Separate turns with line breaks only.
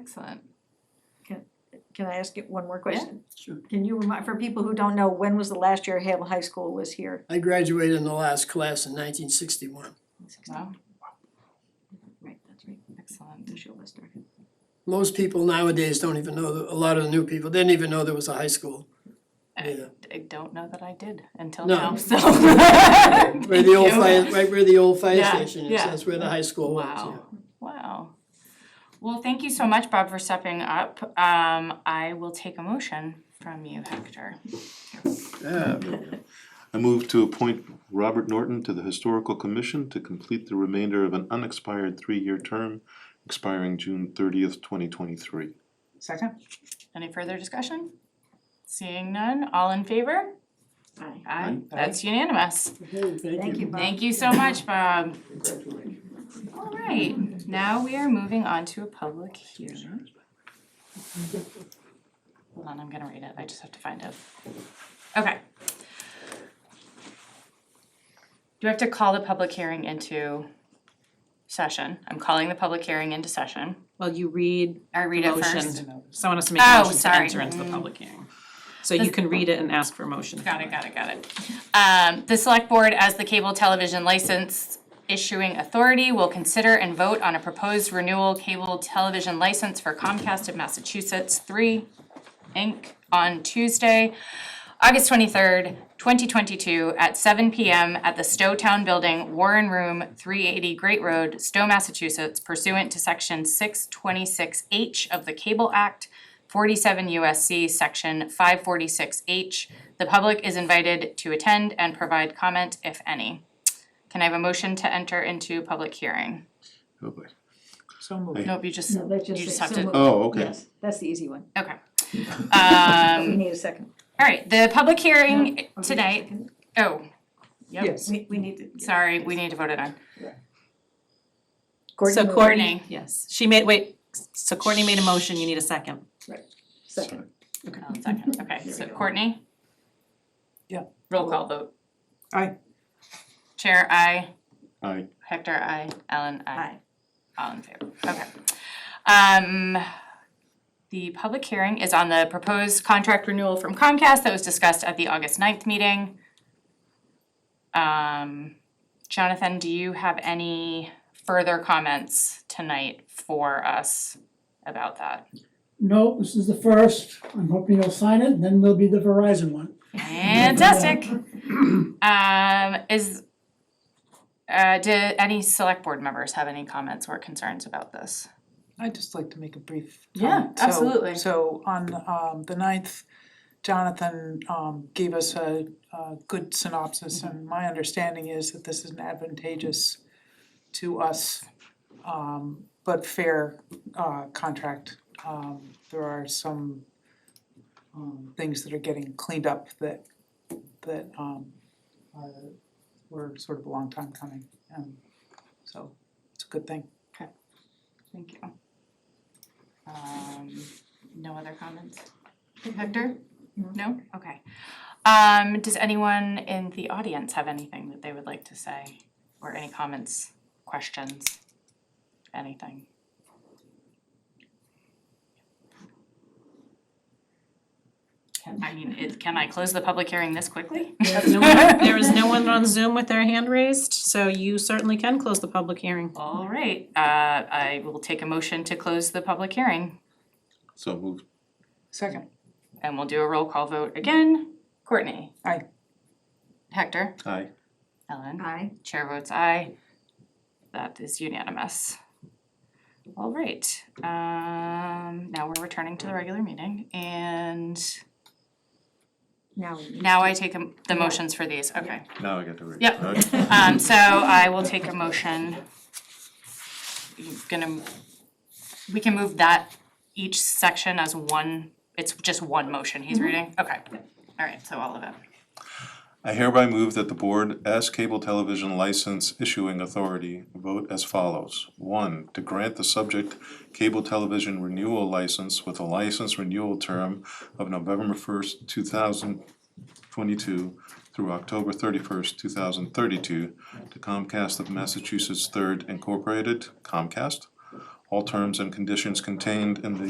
Excellent.
Can I ask you one more question?
Sure.
Can you remind, for people who don't know, when was the last year Hale High School was here?
I graduated in the last class in nineteen sixty-one.
Wow,
Right, that's right,
excellent.
Michelle Lester.
Most people nowadays don't even know, the- a lot of the new people didn't even know there was a high school. Yeah,
I don't know that I did until
No.
now, so.
Where the old
Thank you.
fire, right where the old fire
Yeah,
station is,
yeah.
that's where the high school was, yeah.
Wow, wow. Well, thank you so much, Bob, for stepping up. Um, I will take a motion from you, Hector.
Yeah, there we go. I move to appoint Robert Norton to the Historical Commission to complete the remainder of an unexpired three-year term expiring June thirtieth, twenty twenty-three.
Second. Any further discussion? Seeing none, all in favor?
Aye.
Aye, that's unanimous.
Okay,
Thank you, Bob.
Thank you so much, Bob.
Congratulations.
All right, now we are moving on to a public hearing. Hold on, I'm gonna read it, I just have to find it. Okay. Do I have to call the public hearing into session? I'm calling the public hearing into session.
Well, you read
I read
the
it
motion.
first.
Someone has to make
Oh,
a motion to
sorry.
enter into the public hearing. So you can read it and ask for a motion.
Got it, got it, got it. Um, the select board as the cable television license issuing authority will consider and vote on a proposed renewal cable television license for Comcast of Massachusetts three Inc. on Tuesday, August twenty-third, twenty twenty-two at seven P M at the Stowe Town Building, Warren Room, three eighty Great Road, Stowe, Massachusetts pursuant to section six twenty-six H of the Cable Act, forty-seven USC, section five forty-six H. The public is invited to attend and provide comment, if any. Can I have a motion to enter into public hearing?
Oh boy.
So
Nope, you just,
No, that's just.
You just
it.
have
So
to-
moved.
Oh, okay.
Yes, that's the easy one.
okay.
We
Um,
need a second.
all right, the public
No,
hearing
okay,
tonight,
second.
oh, yep,
Yes,
We, we need to.
sorry, we need to vote it on.
Courtney
So
moved.
Courtney, yes, she made, wait, so Courtney made a motion, you need a second.
Second.
I'll second,
Mm-hmm.
okay, so Courtney?
Yeah.
Roll call vote.
Aye.
Chair, I.
Aye.
Hector, I. Ellen, I.
Aye.
All in favor, okay. Um, the public hearing is on the proposed contract renewal from Comcast that was discussed at the August 9th meeting. Um, Jonathan, do you have any further comments tonight for us about that?
No, this is the first. I'm hoping you'll sign it, and then we'll be the Verizon one.
Fantastic. Um, is, uh, do any select board members have any comments or concerns about this?
I'd just like to make a brief
Yeah,
comment. So-
absolutely.
So on um the ninth, Jonathan um gave us a a good synopsis and my understanding is that this is an advantageous to us um but fair uh contract. Um there are some um things that are getting cleaned up that that um are were sort of a long time coming and so it's a good thing.
Thank you. Um, no other comments? Hector? No? Okay. Um, does anyone in the audience have anything that they would like to say? Or any comments, questions, anything? Can, I mean, it, can I close the public hearing this quickly?
No one- There is no one on Zoom with their hand raised, so you certainly can close the public hearing.
All right, uh, I will take a motion to close the public hearing.
So moved.
Second,
And we'll do a roll call vote again. Courtney?
Aye.
Hector?
Aye.
Ellen?
Aye.
Chair votes aye. That is unanimous. All right, um, now we're returning to the regular meeting and
Now we need.
now I take um, the motions for these, okay.
Now I get to read.
Yep.
Okay.
Um, so I will take a motion. You're Gonna, we can move that each section as one, it's just one motion he's reading, okay. All right, so all of it.
I hereby move that the board, as cable television license issuing authority, vote as follows. One, to grant the subject cable television renewal license with a license renewal term of November first, two thousand twenty-two through October thirty-first, two thousand thirty-two to Comcast of Massachusetts Third Incorporated, Comcast. All terms and conditions contained in the